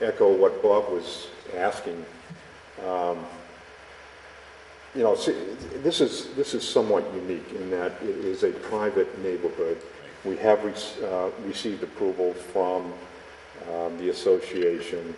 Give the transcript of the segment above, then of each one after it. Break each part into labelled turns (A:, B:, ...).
A: echo what Bob was asking. Um, You know, see, this is, this is somewhat unique in that it is a private neighborhood. We have rec- uh, received approval from um, the association,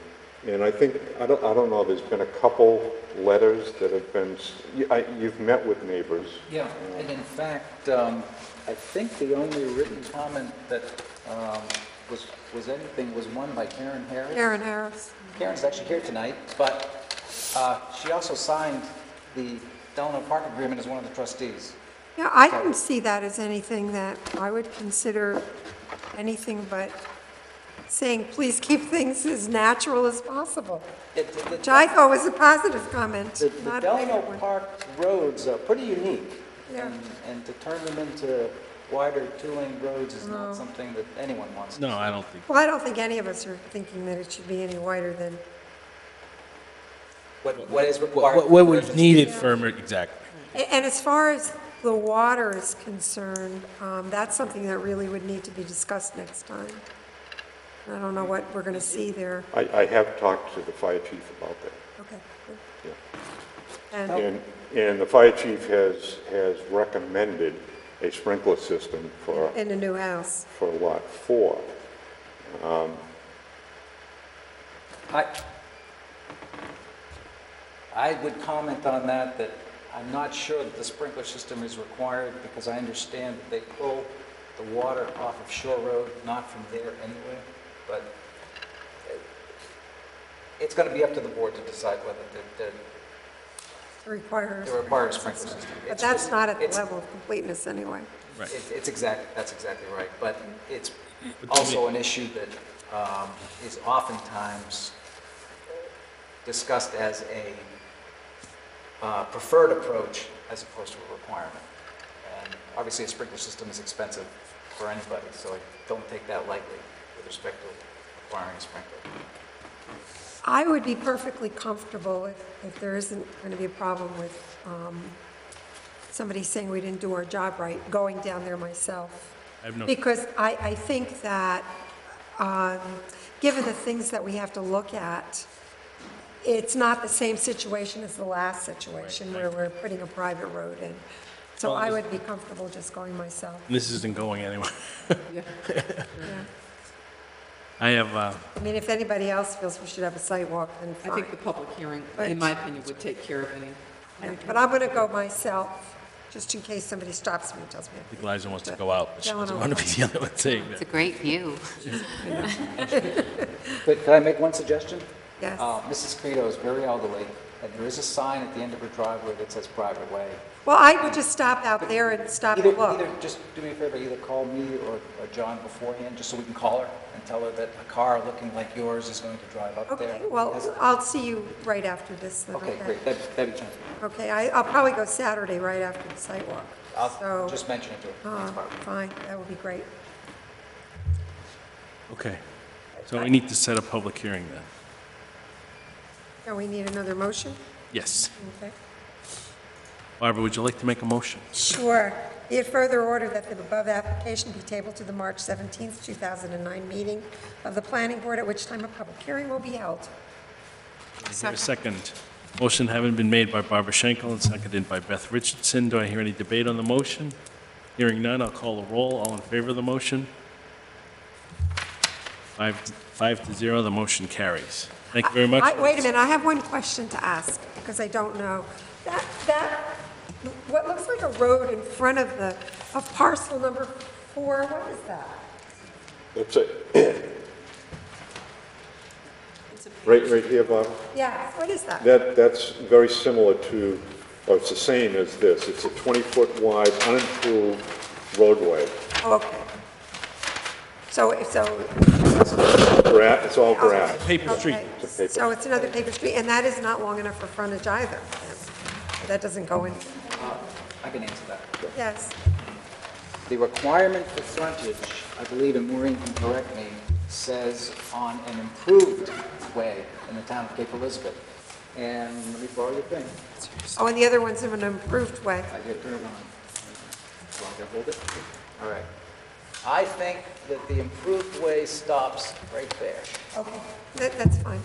A: and I think, I don't, I don't know, there's been a couple letters that have been, s- you- I- you've met with neighbors.
B: Yeah, and in fact, um, I think the only written comment that um, was, was anything was one by Karen Harris.
C: Karen Harris.
B: Karen's actually here tonight, but uh, she also signed the Delano Park Agreement as one of the trustees.
C: Yeah, I didn't see that as anything that I would consider anything but saying, please keep things as natural as possible,
B: It- the- the-
C: which I thought was a positive comment,
B: The the
C: not a
B: Delano
C: negative one.
B: Park roads are pretty unique.
C: Yeah.
B: and- And to turn them into wider two-lane roads is not something that anyone wants.
D: No, I don't think.
C: Well, I don't think any of us are thinking that it should be any wider than,
B: What what is required.
D: What, what was needed for, emer- exactly.
C: a- and as far as the water is concerned, um, that's something that really would need to be discussed next time. I don't know what we're going to see there.
A: I, I have talked to the fire chief about that.
C: Okay. good.
A: Yeah.
C: And,
A: And, and the fire chief has, has recommended a sprinkler system for,
C: in a new house.
A: for lot four.
B: I, I would comment on that, that I'm not sure that the sprinkler system is required, because I understand that they pull the water off of Shore Road, not from there anyway, but uh, it's gonna be up to the board to decide whether they're,
C: requires,
B: they require a sprinkler system.
C: but
B: It's-
C: that's not at the
B: it's-
C: level of completeness anyway.
D: Right.
B: it- It's exact, that's exactly right, but it's
D: But then we-
B: also an issue that um, is oftentimes discussed as a uh, preferred approach as opposed to a requirement. And obviously, a sprinkler system is expensive for anybody, so I don't take that lightly with respect to requiring a sprinkler.
C: I would be perfectly comfortable if, if there isn't going to be a problem with um, somebody saying we didn't do our job right, going down there myself.
D: I have no-
C: Because I, I think that, um, given the things that we have to look at, it's not the same situation as the last situation where we're putting a private road in. So
D: Well,
C: I
D: this-
C: would be comfortable just going myself.
D: This isn't going anywhere. I have, uh,
C: I mean, if anybody else feels we should have a site walk, then
E: I think the
C: fine.
E: public hearing, in my opinion, would take care of any,
C: Yeah, But I'm going to go myself, just in case somebody stops me and tells me.
D: I think Liza wants to go out, but she
C: Delano.
D: doesn't want to be the other one saying
F: It's
D: that.
F: a great view.
B: Could could I make one suggestion?
C: Yes.
B: Uh, Mrs. Credo is very elderly, and there is a sign at the end of her driveway that says private way.
C: Well, I would just stop out there and stop
B: Either,
C: and look.
B: either, just do me a favor, either call me or, or John beforehand, just so we can call her and tell her that a car looking like yours is going to drive up there.
C: Okay, well, I'll see you right after this then,
B: Okay, great, that'd, that'd be fine.
C: Okay, I, I'll probably go Saturday right after the site walk.
B: I'll
C: So,
B: just mention it to her. That's
C: uh,
B: fine.
C: fine, that would be great.
D: Okay. So we need to set a public hearing then.
C: Now, we need another motion?
D: Yes.
C: Okay.
D: Barbara, would you like to make a motion?
C: Sure. Be it further ordered that the above application be tabled to the March 17th, 2009 meeting of the planning board, at which time a public hearing will be held.
D: Is there a second? Motion having been made by Barbara Schenkel and seconded by Beth Richardson. Do I hear any debate on the motion? Hearing none, I'll call the roll. All in favor of the motion? Five, five to zero, the motion carries. Thank you very much.
C: I- Wait a minute, I have one question to ask, because I don't know. That, that, what looks like a road in front of the, of parcel number four, what is that?
A: That's it. Right, right here, Bob.
C: Yeah, what is that?
A: That, that's very similar to, or it's the same as this. It's a 20-foot wide unimproved roadway.
C: Oh, okay. So, if- so.
A: Gra- It's all grass.
D: Paper street.
C: okay.
A: It's a paper-
C: So it's another paper street, and that is not long enough for frontage either. That doesn't go in,
B: I can answer that.
C: yes.
B: The requirement for frontage, I believe, and Maureen can correct me, says on an improved way in the town of Cape Elizabeth. And let me borrow your pen.
C: Oh, and the other one's in an improved way.
B: I did turn it on. Do I gotta hold it? All right. I think
G: that the improved way stops right there.
B: Okay, that, that's fine.